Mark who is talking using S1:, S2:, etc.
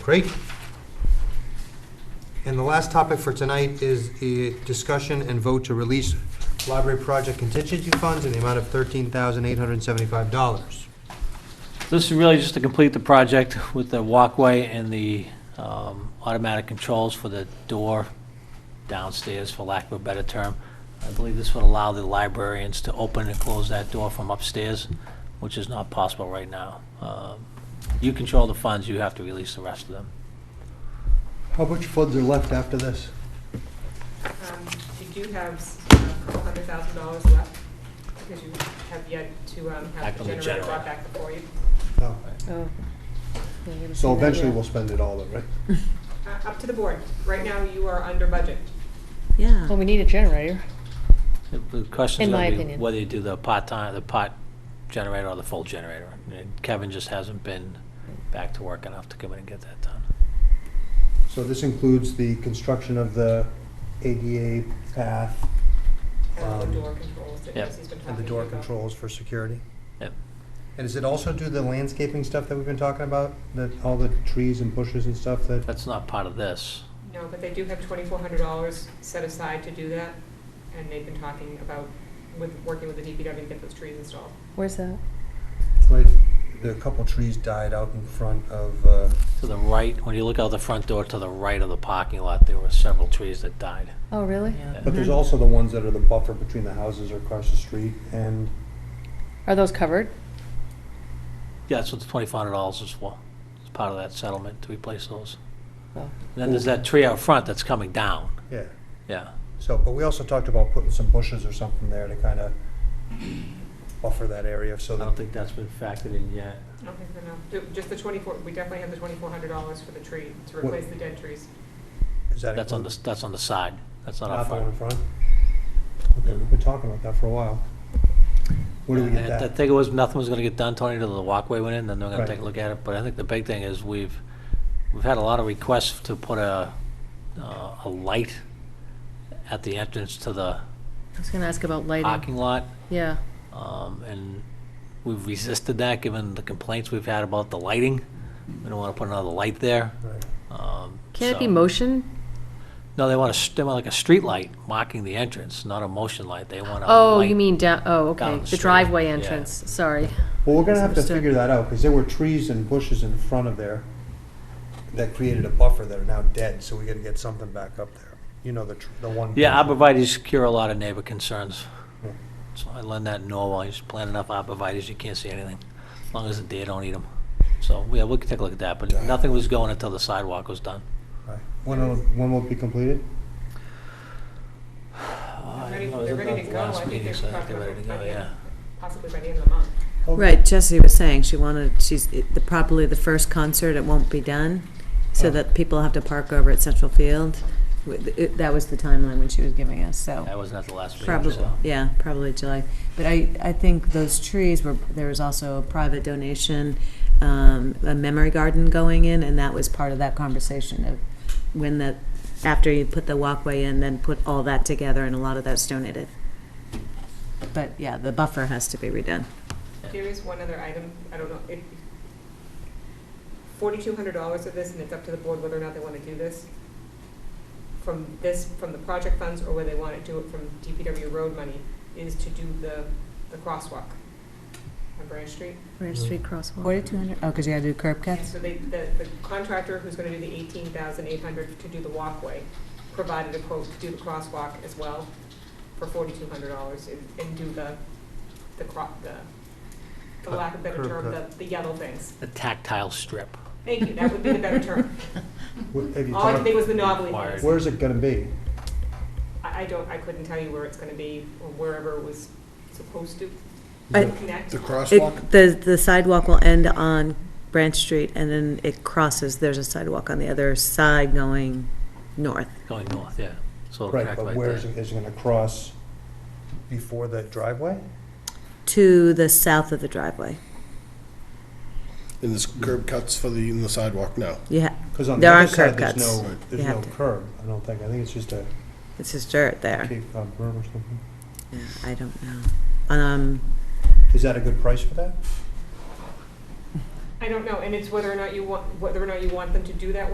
S1: Great. And the last topic for tonight is the discussion and vote to release library project contingency funds in the amount of $13,875.
S2: This is really just to complete the project with the walkway and the um, automatic controls for the door downstairs, for lack of a better term. I believe this would allow the librarians to open and close that door from upstairs, which is not possible right now. Um, You control the funds, you have to release the rest of them.
S1: How much funds are left after this?
S3: Um, You do have s- a couple hundred thousand dollars left, because you have yet to um,
S2: Back
S3: have the
S2: on the
S3: generator
S2: generator.
S3: brought back before you.
S4: Oh. Yeah, you haven't
S1: So
S4: seen that
S1: eventually
S4: yet.
S1: we'll spend it all, though, right?
S3: Uh, Up to the board. Right now, you are under budget.
S5: Yeah.
S4: Well, Oh, we need a generator.
S2: The- The question's
S4: In my
S2: going to be
S4: opinion.
S2: whether you do the part-time, the part generator or the full generator. And Kevin just hasn't been back to work enough to come in and get that done.
S1: So this includes the construction of the ADA path
S3: And
S1: Um,
S3: the door controls that
S2: Yep.
S3: Jesse's been talking
S1: and the door
S3: to you about.
S1: controls for security.
S2: Yep.
S1: And does it also do the landscaping stuff that we've been talking about, that, all the trees and bushes and stuff that?
S2: That's not part of this.
S3: No, but they do have twenty-four hundred dollars set aside to do that, and they've been talking about with, working with the DPW to get those trees installed.
S4: Where's that?
S1: Right, there are a couple trees died out in front of, uh,
S2: To the right, when you look out the front door to the right of the parking lot, there were several trees that died.
S4: Oh, really?
S1: but there's
S5: Mhm.
S1: also the ones that are the buffer between the houses or across the street, and
S4: Are those covered?
S2: Yeah, that's what the twenty-five hundred dollars is for. It's part of that settlement to replace those.
S4: Oh.
S2: Then there's that tree out front that's coming down.
S1: Yeah,
S2: Yeah,
S1: so, but we also talked about putting some bushes or something there to kind of buffer that area, so
S2: I
S1: that.
S2: don't think that's been factored in yet.
S3: Okay, fair enough. Ju- Just the twenty-four, we definitely have the twenty-four hundred dollars for the tree, to
S1: What-
S3: replace the dead trees.
S1: Is that
S2: That's on
S1: include-
S2: the, that's on the side. That's not
S1: Not
S2: up
S1: the one in
S2: front.
S1: front? Okay, we've been talking about that for a while. Where do we get
S2: I- I
S1: that?
S2: think it was, nothing was gonna get done, Tony, till the walkway went in, then they're gonna
S1: Right.
S2: take a look at it. But I think the big thing is we've, we've had a lot of requests to put a, uh, a light at the entrance to the
S5: I was gonna ask about lighting.
S2: parking lot.
S5: Yeah.
S2: Um, and we've resisted that, given the complaints we've had about the lighting. We don't want to put another light there.
S1: Right.
S2: Um,
S5: Can it be
S2: so-
S5: motion?
S2: No, they want a, they want like a street light marking the entrance, not a motion light. They want a
S5: Oh,
S2: light.
S5: you mean down, oh,
S2: um, down
S5: okay,
S2: the
S5: the
S2: street,
S5: driveway
S2: yeah.
S5: entrance, sorry.
S1: Well, we're gonna have to
S5: Misunderstood.
S1: figure that out, because there were trees and bushes in front of there that created a buffer that are now dead, so we gotta get something back up there. You know, the, tr- the one.
S2: Yeah, arborvitae's cure a lot of neighbor concerns.
S1: Yeah.
S2: So I learned that in Norway. You just plant enough arborvitae's, you can't see anything, as long as the deer don't eat them. So, yeah, we can take a look at that, but nothing was going until the sidewalk was done.
S1: Right. When, will- when will it be completed?
S2: Oh, I
S3: ready-
S2: know, it was
S3: they're
S2: at
S3: ready
S2: the
S3: to go.
S2: last
S3: I think
S2: meeting,
S3: they're
S2: so I think
S3: talking
S2: they're ready to go,
S3: about
S2: yeah.
S3: possibly by the end of the month.
S1: Okay.
S5: Right, Jesse was saying she wanted, she's, the probably the first concert, it won't be done,
S1: Oh.
S5: so that people have to park over at Central Field. Wi- it- That was the timeline when she was giving us,
S2: That
S5: so.
S2: wasn't at the last meeting,
S5: Probably,
S2: so.
S5: yeah, probably July. But I, I think those trees were, there was also a private donation, um, a memory garden going in, and that was part of that conversation of when the, after you put the walkway in, then put all that together, and a lot of that's donated. But, yeah, the buffer has to be redone.
S3: There is one other item, I don't know, it, forty-two hundred dollars of this, and it's up to the board whether or not they wanna do this. From this, from the project funds, or whether they wanna do it from DPW road money, is to do the, the crosswalk on Branch Street.
S1: Branch Street
S5: crosswalk. Forty-two hundred, oh, because you gotta do curb
S3: And
S5: cuts?
S3: So they, the the contractor who's gonna do the eighteen thousand eight hundred to do the walkway, provided a quote to do the crosswalk as well for forty-two hundred dollars and, and do the, the cro, the, for
S1: Cut,
S3: lack of better
S1: curb
S3: term, the,
S1: cut.
S3: the yellow things.
S2: The tactile strip.
S3: Thank you, that would be the better term.
S1: Wh- have you
S3: All I could
S1: talked-
S3: think was the knobbly
S2: Wired.
S3: things.
S1: Where's it gonna be?
S3: I, I don't, I couldn't tell you where it's gonna be or wherever it was supposed to
S6: I-
S3: connect.
S6: The crosswalk?
S5: It, the, the sidewalk will end on Branch Street, and then it crosses, there's a sidewalk on the other side going north.
S2: Going north, yeah. So it'll
S1: Right,
S2: connect
S1: but
S2: right
S1: where
S2: there.
S1: is it, is it gonna cross before the driveway?
S5: to the south of the driveway.
S6: And there's curb cuts for the, in the sidewalk now.
S5: Yeah,
S1: Because on the
S5: There
S1: other
S5: aren't
S1: side,
S5: curb
S1: there's
S5: cuts.
S1: no,
S6: Right.
S1: there's
S5: You
S1: no
S5: have to-
S1: curb, I don't think, I think it's just a
S5: it's just dirt there.
S1: Cape Cod berm or something.
S5: Yeah, I don't know. Um,
S1: Is that a good price for that?
S3: I don't know, and it's whether or not you want, whether or not you want them to do that work